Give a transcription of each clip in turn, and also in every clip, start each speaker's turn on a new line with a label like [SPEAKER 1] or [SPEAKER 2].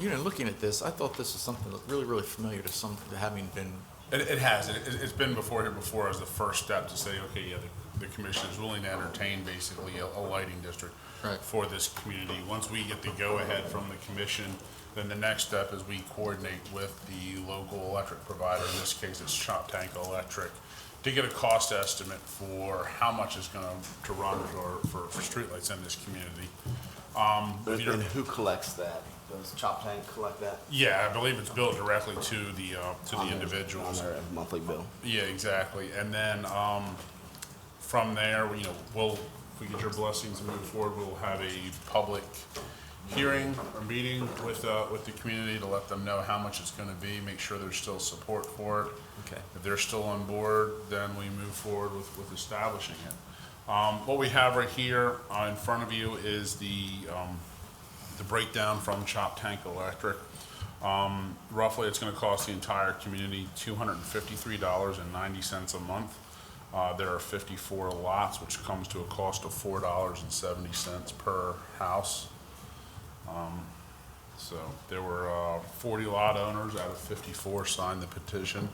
[SPEAKER 1] You know, looking at this, I thought this was something that really, really familiar to some, to having been,
[SPEAKER 2] It, it has. It, it- it's been before here before as the first step to say, okay, yeah, the, the commission is willing to entertain basically a, a lighting district
[SPEAKER 1] Right.
[SPEAKER 2] for this community. Once we get the go-ahead from the commission, then the next step is we coordinate with the local electric provider, in this case, it's Chop Tank Electric, to get a cost estimate for how much is gonna, to run for, for, for streetlights in this community.
[SPEAKER 3] But
[SPEAKER 2] Peter.
[SPEAKER 3] then who collects that? Does Chop Tank collect that?
[SPEAKER 2] Yeah, I believe it's billed directly to the, uh, to
[SPEAKER 3] on
[SPEAKER 2] the
[SPEAKER 3] their-
[SPEAKER 2] individuals.
[SPEAKER 3] On their monthly bill.
[SPEAKER 2] Yeah, exactly. And then, um, from there, you know, we'll, if we get your blessings and move forward, we'll have a public hearing or meeting with, uh, with the community to let them know how much it's gonna be, make sure there's still support for it.
[SPEAKER 1] Okay.
[SPEAKER 2] If they're still on board, then we move forward with, with establishing it. Um, what we have right here, uh, in front of you is the, um, the breakdown from Chop Tank Electric. Um, roughly, it's gonna cost the entire community two hundred and fifty-three dollars and ninety cents a month. Uh, there are fifty-four lots, which comes to a cost of four dollars and seventy cents per house. Um, So, there were, uh, forty lot owners out of fifty-four signed the petition.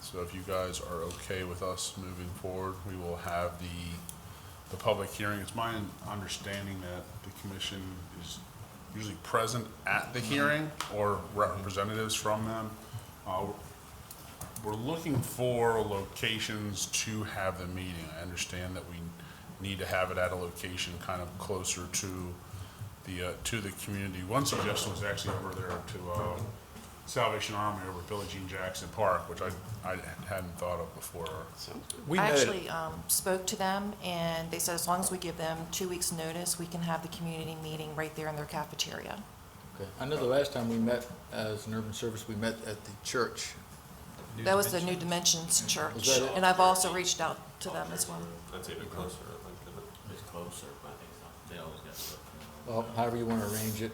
[SPEAKER 2] So if you guys are okay with us moving forward, we will have the, the public hearing. It's my understanding that the commission is usually present at the hearing or representatives from them. Uh, We're looking for locations to have the meeting. I understand that we need to have it at a location kind of closer to the, uh, to the community. One suggestion was actually over there to, uh, Salvation Army over at Billie Jean Jackson Park, which I, I hadn't thought of before.
[SPEAKER 1] we
[SPEAKER 4] I
[SPEAKER 1] know, that-
[SPEAKER 4] actually um, spoke to them, and they said as long as we give them two weeks' notice, we can have the community meeting right there in their cafeteria.
[SPEAKER 1] Okay. I know the last time we met as an urban service, we met at the church.
[SPEAKER 4] That was the New Dimensions
[SPEAKER 1] Was
[SPEAKER 4] Church,
[SPEAKER 1] that it?
[SPEAKER 4] and I've also reached out to them as well.
[SPEAKER 5] That's even closer, I think, than it. It's closer, but they always get stuck.
[SPEAKER 1] Well, however you want to arrange it,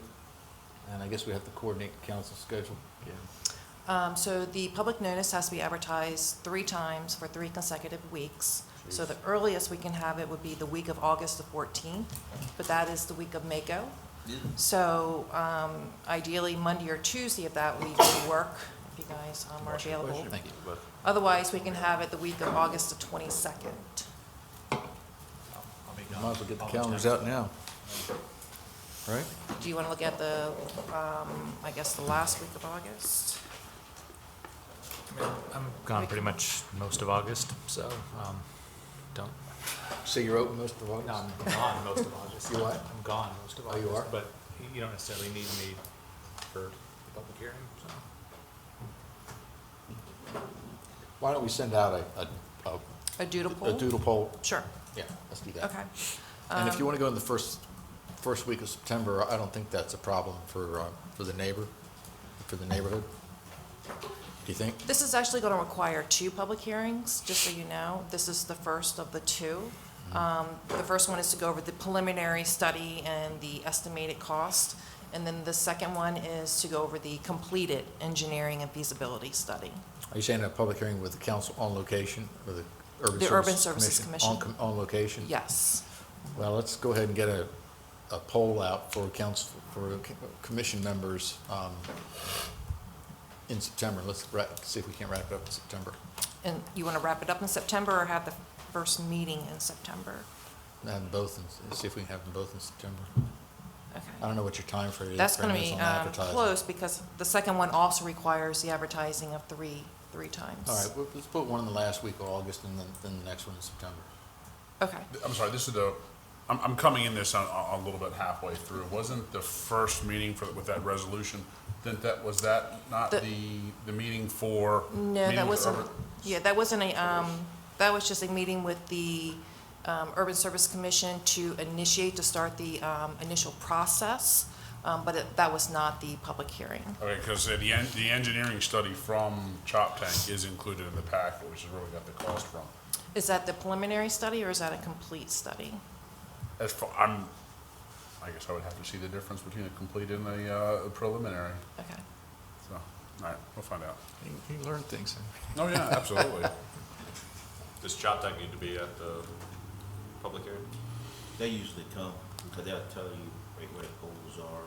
[SPEAKER 1] and I guess we have to coordinate the council schedule.
[SPEAKER 4] Um, So the public notice has to be advertised three times for three consecutive weeks. So the earliest we can have it would be the week of August the 14th, but that is the week of Mako. So um, ideally, Monday or Tuesday of that week would work, if you guys um, are available.
[SPEAKER 1] Thank you.
[SPEAKER 4] Otherwise, we can have it the week of August the 22nd.
[SPEAKER 1] Might as well get the calendars out now. Right?
[SPEAKER 4] Do you want to look at the, um, I guess, the last week of August?
[SPEAKER 6] I'm gone pretty much most of August, so um, don't.
[SPEAKER 1] So you're open most of August?
[SPEAKER 6] No, I'm gone most of August.
[SPEAKER 1] You what?
[SPEAKER 6] I'm gone most of
[SPEAKER 1] Oh,
[SPEAKER 6] August.
[SPEAKER 1] you are?
[SPEAKER 6] But you don't necessarily need me for the public hearing, so.
[SPEAKER 1] Why don't we send out a, a,
[SPEAKER 4] A doodle
[SPEAKER 1] a- a
[SPEAKER 4] poll?
[SPEAKER 1] doodle poll?
[SPEAKER 4] Sure,
[SPEAKER 1] Yeah, let's do that.
[SPEAKER 4] okay.
[SPEAKER 1] And
[SPEAKER 4] Um,
[SPEAKER 1] if you want to go in the first, first week of September, I don't think that's a problem for, uh, for the neighbor, for the neighborhood. Do you think?
[SPEAKER 4] This is actually going to require two public hearings, just so you know. This is the first of the two.
[SPEAKER 1] Mm-hmm.
[SPEAKER 4] Um, The first one is to go over the preliminary study and the estimated cost, and then the second one is to go over the completed engineering and feasibility study.
[SPEAKER 1] Are you saying a public hearing with the council on location, with the Urban Services Commission?
[SPEAKER 4] The Urban Services
[SPEAKER 1] on
[SPEAKER 4] Commission.
[SPEAKER 1] com- On location?
[SPEAKER 4] Yes.
[SPEAKER 1] Well, let's go ahead and get a, a poll out for council, for c- commission members um, in September. Let's wrap, see if we can't wrap it up in September.
[SPEAKER 4] And you want to wrap it up in September or have the first meeting in September?
[SPEAKER 1] Have them both, in- see if we can have them both in September.
[SPEAKER 4] Okay.
[SPEAKER 1] I don't know what your time frame is.
[SPEAKER 4] That's going to
[SPEAKER 1] frame is
[SPEAKER 4] be
[SPEAKER 1] on
[SPEAKER 4] um,
[SPEAKER 1] advertising.
[SPEAKER 4] close because the second one also requires the advertising of three, three times.
[SPEAKER 1] All right, well, let's put one in the last week of August and then, then the next one in September.
[SPEAKER 4] Okay.
[SPEAKER 2] I'm sorry, this is the, I'm, I'm coming in this on, on a little bit halfway through. Wasn't the first meeting for, with that resolution, didn't that, was that not
[SPEAKER 4] The-
[SPEAKER 2] the, the meeting for?
[SPEAKER 4] No,
[SPEAKER 2] meeting
[SPEAKER 4] that
[SPEAKER 2] with
[SPEAKER 4] wasn't,
[SPEAKER 2] urban-
[SPEAKER 4] yeah, that wasn't a, um, that was just a meeting with the um, Urban Service Commission to initiate, to start the um, initial process, um, but it- that was not the public hearing.
[SPEAKER 2] Okay, because the, en- the engineering study from Chop Tank is included in the packet, which is where we got the cost from.
[SPEAKER 4] Is that the preliminary study or is that a complete study?
[SPEAKER 2] As far, I'm, I guess I would have to see the difference between a complete and a uh, preliminary,
[SPEAKER 4] Okay.
[SPEAKER 2] so, all right, we'll find out.
[SPEAKER 1] You learn things.
[SPEAKER 2] Oh, yeah, absolutely.
[SPEAKER 5] Does Chop Tank need to be uh, at the public hearing?
[SPEAKER 7] They usually come, because they'll tell you right where the poles are,